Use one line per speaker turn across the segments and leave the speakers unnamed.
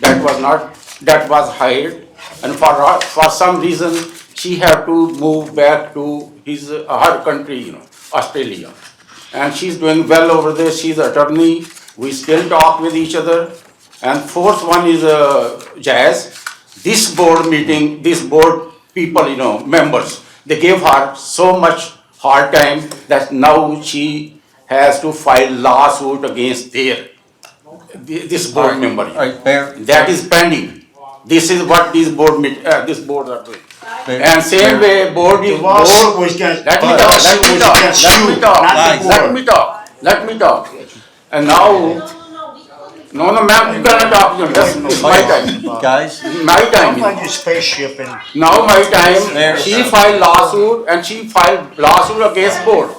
that was not, that was hired. And for, her- for some reason, she had to move back to his, uh, her country, you know, Australia. And she's doing well over there, she's attorney, we still talk with each other. And fourth one is, uh, Jazz. This board meeting, this board people, you know, members, they gave her so much hard time that now she has to file lawsuit against their, thi- this board member.
All right, Mayor.
That is pending. This is what these board meet, uh, this board are doing.
Mayor,
And same
Mayor,
way board is,
The lawsuit
board,
was against.
let me
the
talk,
lawsuit
let me
was
talk,
against
let
you,
me talk,
Not the
let
board.
me talk, let me talk. And now, no, no, ma'am, you cannot talk, you know, that's, it's my time,
Guys,
my time.
Come
you know.
on, you spaceship and.
Now my
Mayor.
time, she filed lawsuit and she filed lawsuit against board.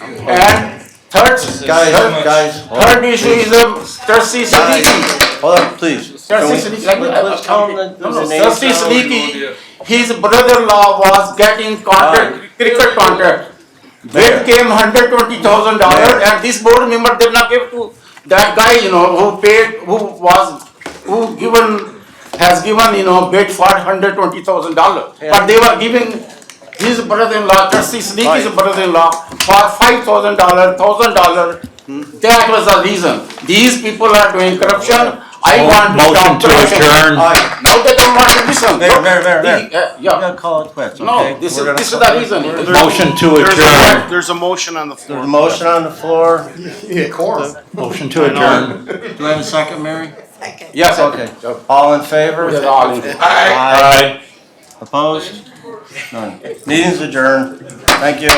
And third,
guys,
third,
guys, hold on,
third issue is the trustee Siddiqui.
hold on, please. Can we-
Let's
tell them the- the name.
Trustee Siddiqui, his brother-in-law was getting
Ah.
contract, cricket contract. Bid came hundred twenty thousand dollars and this board member did not give to that guy, you know, who paid, who was, who given, has given, you know, bid for hundred twenty thousand dollars. But they were giving his brother-in-law, trustee Siddiqui's
Right.
brother-in-law, for five thousand dollar, thousand dollar. That was the reason. These people are doing corruption. I want to
Motion
stop
to
corruption.
adjourn.
All right,
Now they don't want to listen.
Mayor, Mayor, Mayor,
The-
Mayor.
uh,
I'm
Yeah,
gonna call it quits, okay?
no, this is,
We're gonna-
this is the reason.
Motion to adjourn.
There's a motion on the floor.
There's a motion on the floor.
Motion to adjourn.
Do I have a second, Mary?
Yes,
Okay,
okay.
all in favor?
Yes, all in favor.
Aye. Opposed? None. Meeting's adjourned. Thank you.